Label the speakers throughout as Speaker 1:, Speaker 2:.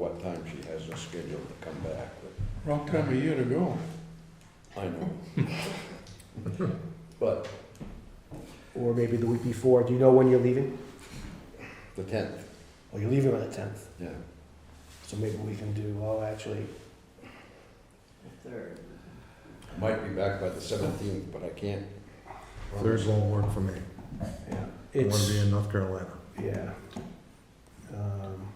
Speaker 1: what time she has us scheduled to come back, but
Speaker 2: Wrong time of year to go.
Speaker 1: I know. But
Speaker 3: Or maybe the week before. Do you know when you're leaving?
Speaker 1: the tenth,
Speaker 3: Oh, you're leaving on the tenth.
Speaker 1: yeah,
Speaker 3: So maybe we can do, well, actually,
Speaker 4: Third.
Speaker 1: might be back by the seventeenth, but I can't.
Speaker 5: Third won't work for me.
Speaker 3: yeah.
Speaker 5: I want to be
Speaker 3: It's,
Speaker 5: in North Carolina.
Speaker 3: yeah. Um,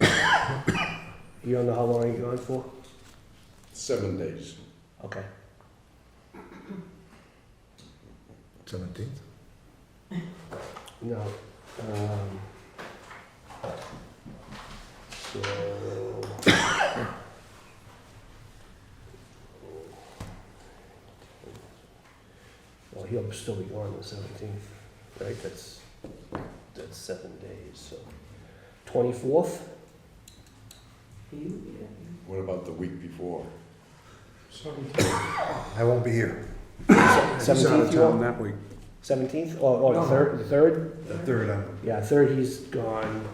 Speaker 3: you don't know how long you're gone for?
Speaker 1: Seven days,
Speaker 3: Okay.
Speaker 5: Seventeenth.
Speaker 3: No. Um, so. Well, he'll still be gone the seventeenth, right? That's, that's seven days, so. Twenty-fourth?
Speaker 4: You,
Speaker 1: what about the week before?
Speaker 5: I won't be here.
Speaker 3: Seventeenth, you want?
Speaker 5: that week.
Speaker 3: Seventeenth, or, or the third, the third?
Speaker 5: The third, I'm,
Speaker 3: Yeah, third, he's gone.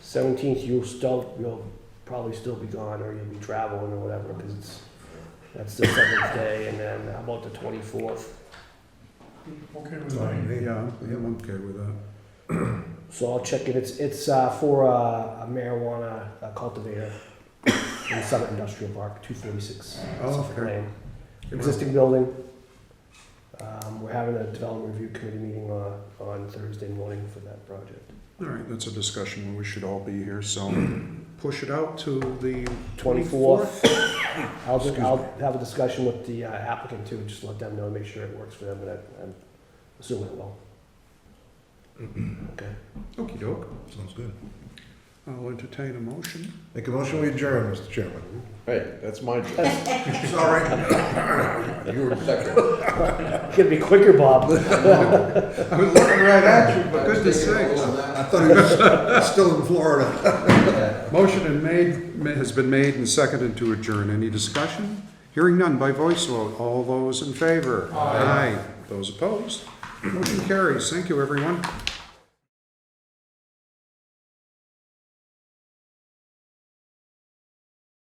Speaker 3: Seventeenth, you'll still, you'll probably still be gone, or you'll be traveling or whatever, because it's, that's the seventh day, and then how about the twenty-fourth?
Speaker 2: Okay
Speaker 5: it's
Speaker 2: with
Speaker 5: on
Speaker 2: me.
Speaker 5: me.
Speaker 6: Yeah, I'm
Speaker 5: okay with that.
Speaker 3: So I'll check it, it's, it's, uh, for uh, a marijuana uh, cultivator in Summit Industrial Park, two forty-six.
Speaker 5: Oh, okay.
Speaker 3: Existing building. Um, we're having a development review committee meeting on, on Thursday morning for that project.
Speaker 6: All right, that's a discussion, we should all be here, so push it out to the
Speaker 3: Twenty-fourth. I'll,
Speaker 6: Excuse
Speaker 3: I'll
Speaker 6: me.
Speaker 3: have a discussion with the uh, applicant too, just let them know, make sure it works for them, but I- I'm assuming it will. Okay.
Speaker 6: Okey doke,
Speaker 5: Sounds good.
Speaker 6: I'll entertain a motion.
Speaker 5: Make a motion, we adjourn, Mr. Chairman.
Speaker 1: Hey, that's my job.
Speaker 5: Sorry.
Speaker 1: You were second.
Speaker 3: Gonna be quicker, Bob.
Speaker 6: I was looking right at you, but goodness sakes.
Speaker 5: I thought he was still in Florida.
Speaker 6: Motion and made, ma- has been made and seconded to adjourn. Any discussion? Hearing none by voice vote. All those in favor? Aye. Those opposed? Motion carries. Thank you, everyone.